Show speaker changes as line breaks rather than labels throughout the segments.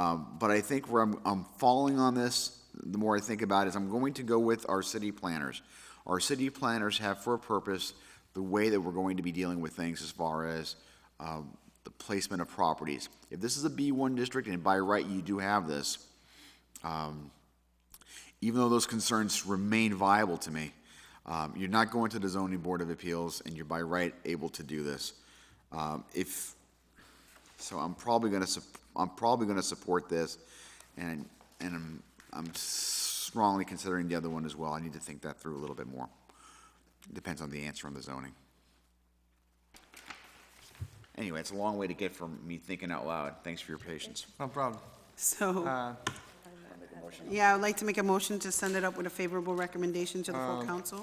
Um, But I think where I'm, I'm falling on this, the more I think about it, is I'm going to go with our city planners. Our city planners have for a purpose the way that we're going to be dealing with things as far as um, the placement of properties. If this is a B1 district, and by right you do have this, um, even though those concerns remain viable to me, um, you're not going to the zoning board of appeals, and you're by right able to do this. Um, if, so I'm probably gonna, sup- I'm probably gonna support this, and, and I'm, I'm strongly considering the other one as well. I need to think that through a little bit more. Depends on the answer on the zoning. Anyway, it's a long way to get from me thinking out loud. Thanks for your patience.
No problem. Uh,
So, yeah, I'd like to make a motion to send it up with a favorable recommendation to the full council.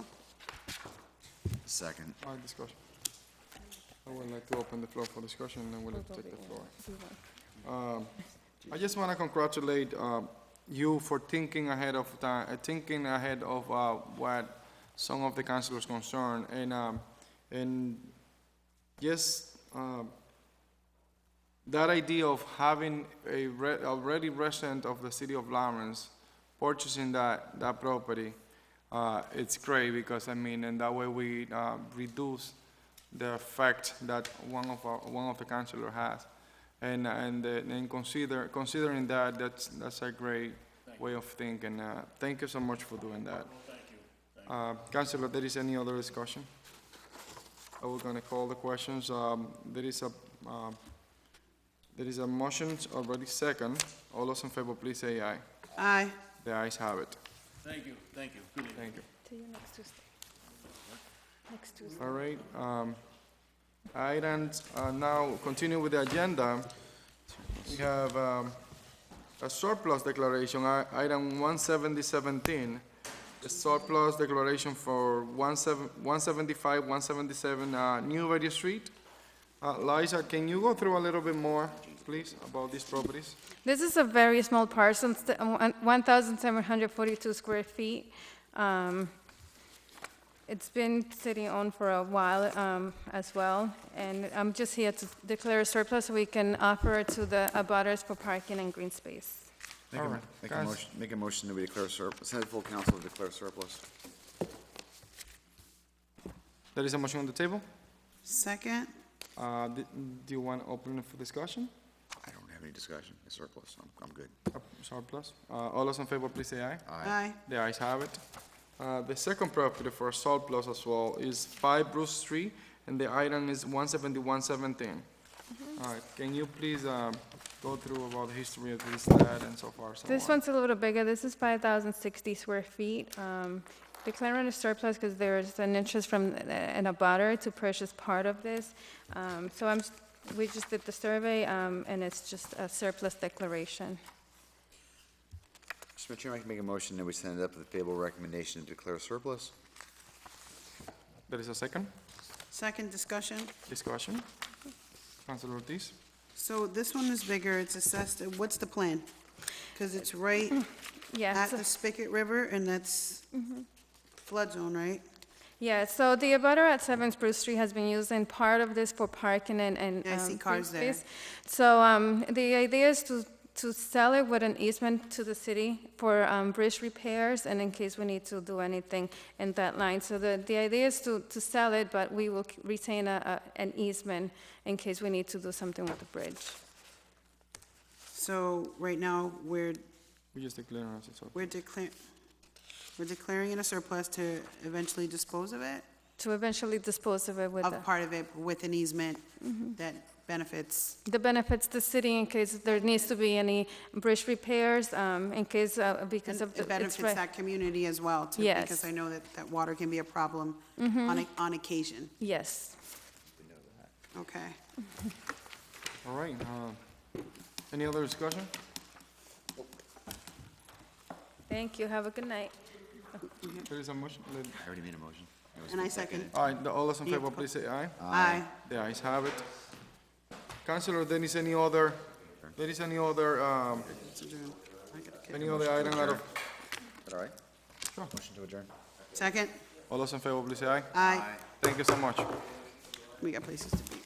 Second.
All right, discussion. I would like to open the floor for discussion, and then we'll take the floor. Um, I just want to congratulate um, you for thinking ahead of time, thinking ahead of uh, what some of the councilors concern, and, um, and just um, that idea of having a re- already resident of the city of Lawrence purchasing that, that property, uh, it's great because, I mean, and that way we, uh, reduce the effect that one of our, one of the councilor has. And, and, uh, and consider, considering that, that's, that's a great way of thinking. Uh, thank you so much for doing that. Uh, councilor, there is any other discussion? I was gonna call the questions. Um, there is a, um, there is a motion already second. All those in favor, please say aye.
Aye.
The ayes have it.
Thank you, thank you. Good evening.
Thank you.
See you next Tuesday. Next Tuesday.
All right, um, items, uh, now continue with the agenda. We have, um, a surplus declaration, i- item one seventy seventeen. A surplus declaration for one seven, one seventy-five, one seventy-seven, uh, New Radio Street. Uh, Liza, can you go through a little bit more, please, about these properties?
This is a very small parcel, it's the- uh, 1,742 square feet. Um, It's been city-owned for a while um, as well, and I'm just here to declare a surplus so we can offer it to the abutters for parking and green space.
Make a,
Alright,
make a
guys.
motion, make a motion that we declare surplus, send it to full council to declare surplus.
There is a motion on the table?
Second?
Uh, d- Do you want to open it for discussion?
I don't have any discussion, it's surplus, I'm, I'm good.
Uh, Surplus? Uh, All those in favor, please say aye.
Aye.
The ayes have it. Uh, The second property for surplus as well is 5 Bruce Street, and the item is 17117. All right, can you please um, go through about the history of this, that, and so far, so
This
on?
one's a little bigger, this is 5,060 square feet. Um, Declaring a surplus because there's an interest from uh, an abutter to purchase part of this. Um, So I'm, s- we just did the survey, um, and it's just a surplus declaration.
Mr. Chairman, I can make a motion that we send it up with a favorable recommendation to declare surplus.
There is a second
Second discussion?
discussion. Councilor Ortiz?
So this one is bigger, it's assessed, at- what's the plan? Because it's right
Mm-hmm. Yeah,
at
so-
the Spigot River, and that's
Mm-hmm.
flood zone, right?
yeah, so the abutter at Seven Spruce Street has been using part of this for parking and, and.
Yeah, I see
um, green
cars there.
space. So, um, the idea is to, to sell it with an easement to the city for, um, bridge repairs and in case we need to do anything in that line. So the, the idea is to, to sell it, but we will retain a, a, an easement in case we need to do something with the bridge.
So right now, we're,
We just declare as a surplus.
we're declaring, we're declaring it a surplus to eventually dispose of it?
To eventually dispose of it with the, Mm-hmm.
Of part of it with an easement that benefits
the benefits to city in case there needs to be any bridge repairs, um, in case, uh, because
And
of. the
It
it's
benefits
right-
that community as well, too. Because
Yes. Mm-hmm.
I know that, that water can be a problem on, a- on occasion.
Yes.
Okay.
All right, uh, any other discussion?
Thank you. Have a good night.
There is a motion.
I already made a motion. It was
And I
been seconded.
second.
All right, the- all those in favor, please say aye.
Aye.
The ayes have it. Counselor, there is any other, there is any other, um, any other item out of,
Is that all right? Sure. Motion to adjourn.
Second?
all those in favor, please say aye.
Aye.
Thank you so much.
We got places to be.